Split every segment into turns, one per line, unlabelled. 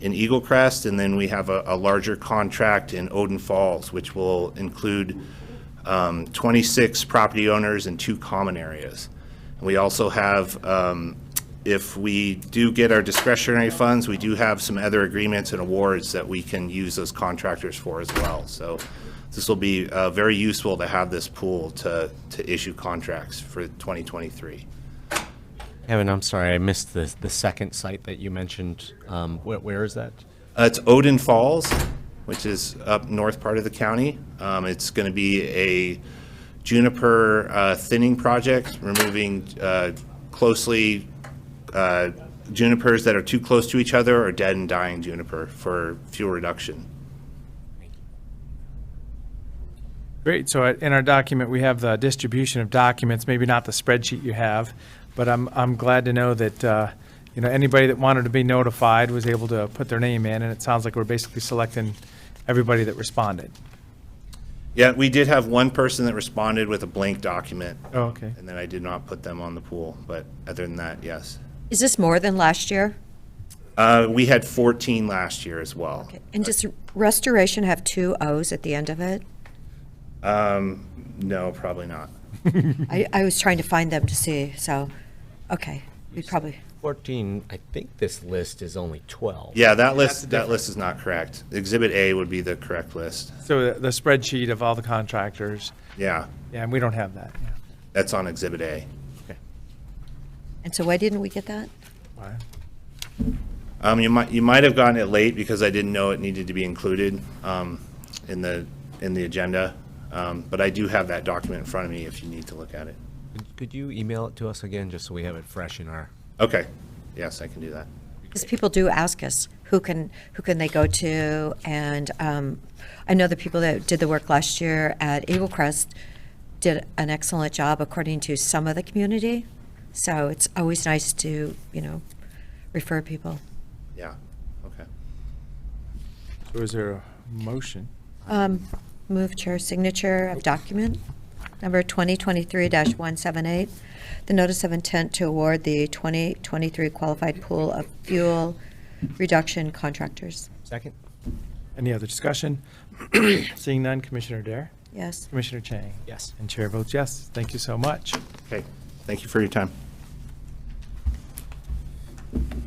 in Eagle Crest, and then we have a, a larger contract in Odin Falls, which will include um, 26 property owners and two common areas. And We also have, um, if we do get our discretionary funds, we do have some other agreements and awards that we can use those contractors for as well. So this will be uh, very useful to have this pool to, to issue contracts for 2023.
Kevin, I'm sorry, I missed the, the second site that you mentioned. Um, where, where is that?
Uh, It's Odin Falls, which is up north part of the county. Um, It's going to be a juniper uh, thinning project, removing uh, closely uh, junipers that are too close to each other or dead and dying juniper for fuel reduction.
Great, so uh, in our document, we have the distribution of documents, maybe not the spreadsheet you have, but I'm, I'm glad to know that, uh, you know, anybody that wanted to be notified was able to put their name in, and it sounds like we're basically selecting everybody that responded.
Yeah, we did have one person that responded with a blank document,
Oh, okay.
and then I did not put them on the pool, but other than that, yes.
Is this more than last year?
Uh, We had 14 last year as well.
And does restoration have two O's at the end of it?
No, probably not.
I, I was trying to find them to see, so, okay, we probably,
14, I think this list is only 12.
Yeah, that list, that list is not correct. Exhibit A would be the correct list.
So uh, the the spreadsheet of all the contractors,
Yeah,
yeah, and we don't have that. yeah.
that's on Exhibit A.
and so why didn't we get that?
Why?
Um, you might, you might have gotten it late because I didn't know it needed to be included, um, in the, in the agenda. Um, but I do have that document in front of me if you need to look at it.
Could- Could you email it to us again, just so we have it fresh in our?
Okay, yes, I can do that.
Because people do ask us, who can, who can they go to? And um, I know the people that did the work last year at Eagle Crest did an excellent job according to some of the community. So it's always nice to, you know, refer people.
Yeah, okay.
So is there a motion?
Um, Move chair signature of document number 2023-178, the notice of intent to award the 2023 qualified pool of fuel reduction contractors.
Second?
Any other discussion? Seeing none, Commissioner Dare,
Yes.
Commissioner Chang,
Yes.
and Chair votes yes. Thank you so much.
Okay, thank you for your time.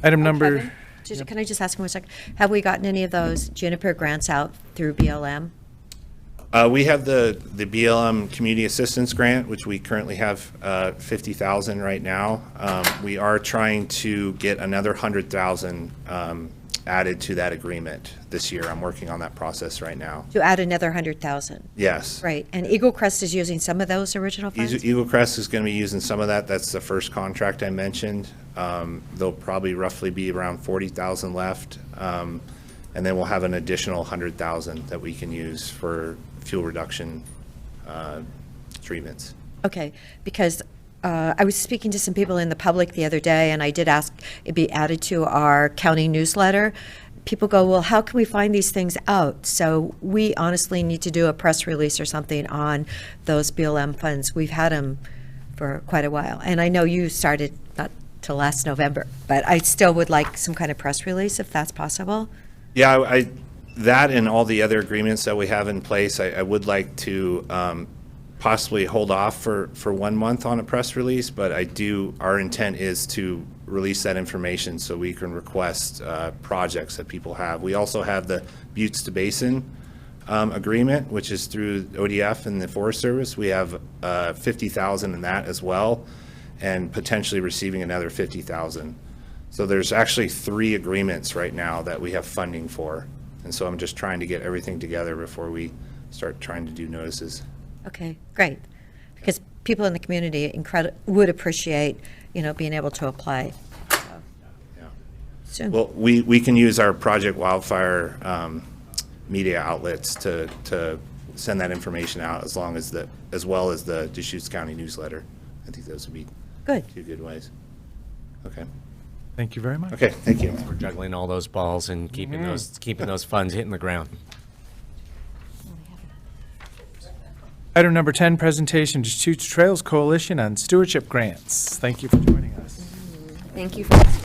Item number,
Kevin, just- Can I just ask one second? Have we gotten any of those Juniper grants out through BLM?
Uh, we have the, the BLM Community Assistance Grant, which we currently have, uh, fifty thousand right now. Um, we are trying to get another hundred thousand, um, added to that agreement this year. I'm working on that process right now.
To add another 100,000?
Yes.
Right, and Eagle Crest is using some of those original
Eas-
funds?
Eagle Crest is going to be using some of that. That's the first contract I mentioned. Um, There'll probably roughly be around 40,000 left. Um, And then we'll have an additional 100,000 that we can use for fuel reduction uh, treatments.
Okay, because uh, I was speaking to some people in the public the other day, and I did ask it be added to our county newsletter. People go, well, how can we find these things out? So we honestly need to do a press release or something on those BLM funds. We've had them for quite a while, and I know you started not till last November, but I still would like some kind of press release if that's possible.
Yeah, I, I- that and all the other agreements that we have in place, I, I would like to um, possibly hold off for, for one month on a press release, but I do, our intent is to release that information so we can request uh, projects that people have. We also have the Buttes to Basin um, agreement, which is through ODF and the Forest Service. We have uh, 50,000 in that as well, and potentially receiving another 50,000. So there's actually three agreements right now that we have funding for. And so I'm just trying to get everything together before we start trying to do notices.
Okay, great. Because people in the community incredi- would appreciate, you know, being able to apply. so. Soon.
Well, we, we can use our Project Wildfire um, media outlets to, to send that information out as long as the, as well as the Deschutes County newsletter. I think those would be
Good.
two good ways. Okay,
thank you very much.
okay, thank you.
We're juggling all those balls and keeping those, keeping those funds hitting the ground.
Item number 10, presentation to Deschutes Trails Coalition on Stewardship Grants. Thank you for joining us.
Thank you for this